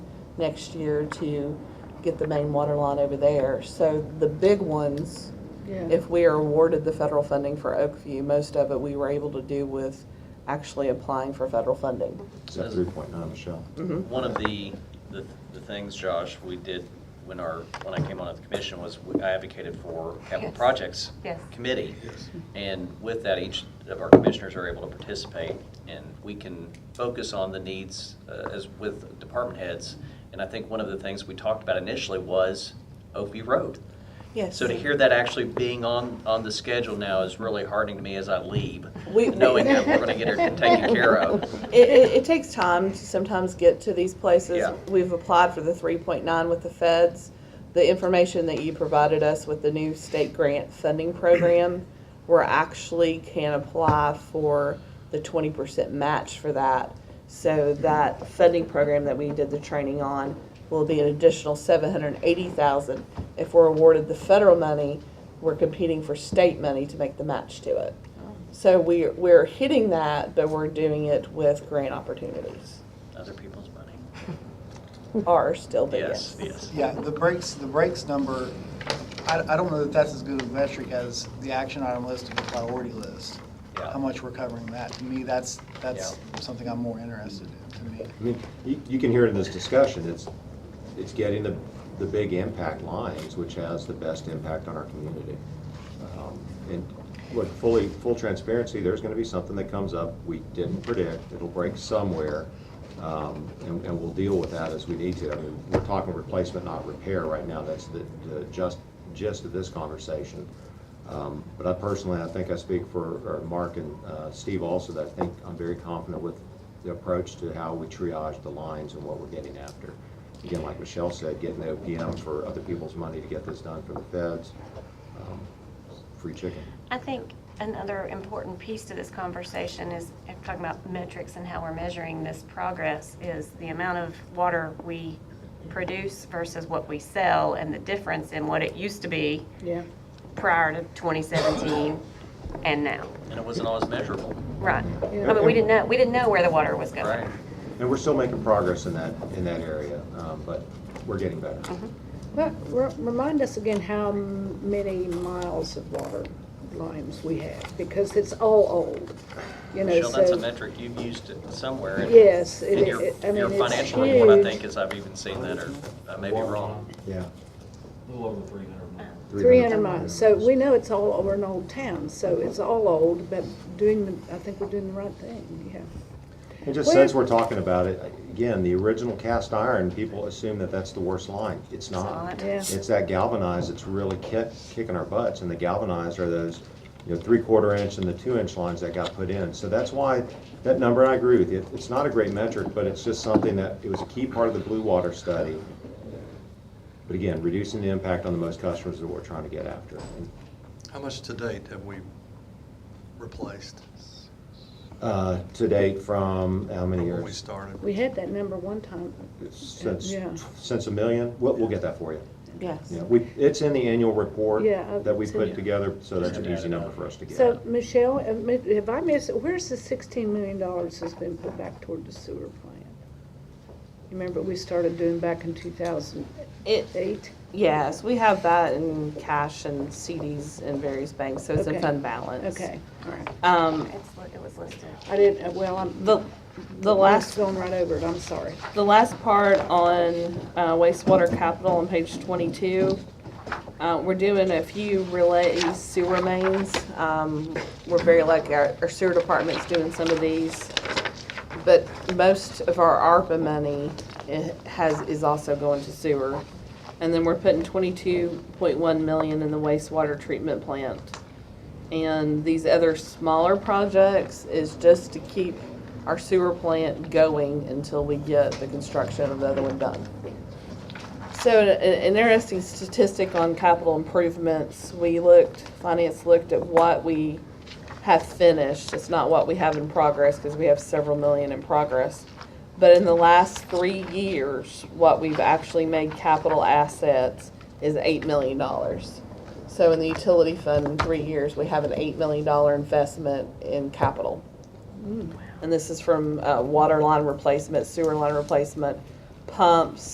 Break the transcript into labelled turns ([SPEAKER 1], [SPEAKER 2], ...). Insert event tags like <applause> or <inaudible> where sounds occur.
[SPEAKER 1] next year to get the main water line over there. So the big ones,
[SPEAKER 2] Yeah,
[SPEAKER 1] if we are awarded the federal funding for Oakview, most of it we were able to do with actually applying for federal funding.
[SPEAKER 3] Is that three point nine, Michelle?
[SPEAKER 4] One of the, the the things, Josh, we did when our, when I came on the commission was we- I advocated for capital
[SPEAKER 5] Yes.
[SPEAKER 4] projects
[SPEAKER 5] Yes.
[SPEAKER 4] committee. And with that, each of our commissioners are able to participate and we can focus on the needs uh, as with department heads. And I think one of the things we talked about initially was Opie Road.
[SPEAKER 1] Yes.
[SPEAKER 4] So to hear that actually being on, on the schedule now is really heartening to me as I leave,
[SPEAKER 1] We-
[SPEAKER 4] knowing that we're going to get it taken care
[SPEAKER 1] <laughs>
[SPEAKER 4] of.
[SPEAKER 1] It, it, it takes time to sometimes get to these places.
[SPEAKER 4] Yeah.
[SPEAKER 1] We've applied for the three point nine with the feds. The information that you provided us with the new state grant funding program, <clears throat> we're actually can apply for the twenty percent match for that. So that funding program that we did the training on will be an additional seven hundred and eighty thousand. If we're awarded the federal money, we're competing for state money to make the match to it. So we're, we're hitting that, but we're doing it with grant opportunities.
[SPEAKER 4] Other people's money.
[SPEAKER 1] Are still the
[SPEAKER 4] Yes,
[SPEAKER 1] yes.
[SPEAKER 4] yes.
[SPEAKER 6] Yeah, the breaks, the breaks number, I, I don't know that that's as good a metric as the action item list and the priority list.
[SPEAKER 4] Yeah.
[SPEAKER 6] How much we're covering that. To me, that's, that's
[SPEAKER 4] Yeah.
[SPEAKER 6] something I'm more interested in, to me.
[SPEAKER 3] I mean, you, you can hear it in this discussion, it's, it's getting the, the big impact lines, which has the best impact on our community. Um, And look, fully, full transparency, there's gonna be something that comes up we didn't predict, it'll break somewhere, um, and, and we'll deal with that as we need to. I mean, we're talking replacement, not repair right now, that's the, the just, gist of this conversation. Um, But I personally, I think I speak for or Mark and uh, Steve also, that I think I'm very confident with the approach to how we triage the lines and what we're getting after. Again, like Michelle said, getting the OPM for other people's money to get this done for the feds, um, free chicken.
[SPEAKER 5] I think another important piece to this conversation is, if talking about metrics and how we're measuring this progress, is the amount of water we produce versus what we sell and the difference in what it used to be
[SPEAKER 2] yeah.
[SPEAKER 5] prior to 2017 and now.
[SPEAKER 4] And it wasn't always measurable.
[SPEAKER 5] Right. I mean, we didn't know, we didn't know where the water was going.
[SPEAKER 4] Right.
[SPEAKER 3] And we're still making progress in that, in that area, um, but we're getting better.
[SPEAKER 2] But re- remind us again how m- many miles of water lines we have, because it's all old, you know, so.
[SPEAKER 4] Michelle, that's a metric you've used it somewhere. in-
[SPEAKER 2] Yes, it-
[SPEAKER 4] In your,
[SPEAKER 2] it- I mean,
[SPEAKER 4] your
[SPEAKER 2] it's
[SPEAKER 4] financial report, I
[SPEAKER 2] huge.
[SPEAKER 4] think, is I've even seen that, or I may be wrong.
[SPEAKER 3] Yeah.
[SPEAKER 7] A little over three hundred miles.
[SPEAKER 2] Three hundred miles, so we know it's all over an old town, so it's all old, but doing, the I think we're doing the right thing, yeah.
[SPEAKER 3] And just since we're talking about it, again, the original cast iron, people assume that that's the worst line. It's not.
[SPEAKER 5] not.
[SPEAKER 2] Yeah.
[SPEAKER 3] It's that galvanized that's really kick, kicking our butts, and the galvanized are those, you know, three-quarter inch and the two-inch lines that got put in. So that's why, that number, I agree with you, it's not a great metric, but it's just something that, it was a key part of the Blue Water study. But again, reducing the impact on the most customers is what we're trying to get after.
[SPEAKER 8] How much to date have we replaced
[SPEAKER 3] Uh, to date, from how many
[SPEAKER 8] from
[SPEAKER 3] years?
[SPEAKER 8] when we started?
[SPEAKER 2] We had that number one time,
[SPEAKER 3] Since,
[SPEAKER 2] Yeah.
[SPEAKER 3] since a million? We'll, we'll get that for you.
[SPEAKER 1] Yes.
[SPEAKER 3] Yeah, we, it's in the annual report
[SPEAKER 2] Yeah, I've
[SPEAKER 3] that we
[SPEAKER 2] seen
[SPEAKER 3] put
[SPEAKER 2] it.
[SPEAKER 3] together, so that's an
[SPEAKER 4] Yeah.
[SPEAKER 3] easy number for us to get.
[SPEAKER 2] So, Michelle, if I miss, where's the sixteen million dollars that's been put back toward the sewer plant? Remember, we started doing back in two thousand
[SPEAKER 1] It,
[SPEAKER 2] eight?
[SPEAKER 1] yes, we have that in cash and CDs in various banks, so it's in
[SPEAKER 2] Okay.
[SPEAKER 1] fund balance.
[SPEAKER 2] Okay, all right.
[SPEAKER 1] Um,
[SPEAKER 5] It's li- It was listed.
[SPEAKER 2] I didn't, uh, well, I'm.
[SPEAKER 1] the, the last,
[SPEAKER 2] Going right over it, I'm sorry.
[SPEAKER 1] the last part on uh, wastewater capital on page twenty-two, uh, we're doing a few relay sewer mains. Um, we're very lucky, our our sewer department's doing some of these. But most of our ARPA money i- has, is also going to sewer. And then we're putting twenty-two point one million in the wastewater treatment plant. And these other smaller projects is just to keep our sewer plant going until we get the construction of the other one done. So an an interesting statistic on capital improvements, we looked, finance looked at what we have finished. It's not what we have in progress because we have several million in progress. But in the last three years, what we've actually made capital assets is eight million dollars. So in the utility fund, in three years, we have an eight million dollar investment in capital. And this is from uh, water line replacement, sewer line replacement, pumps,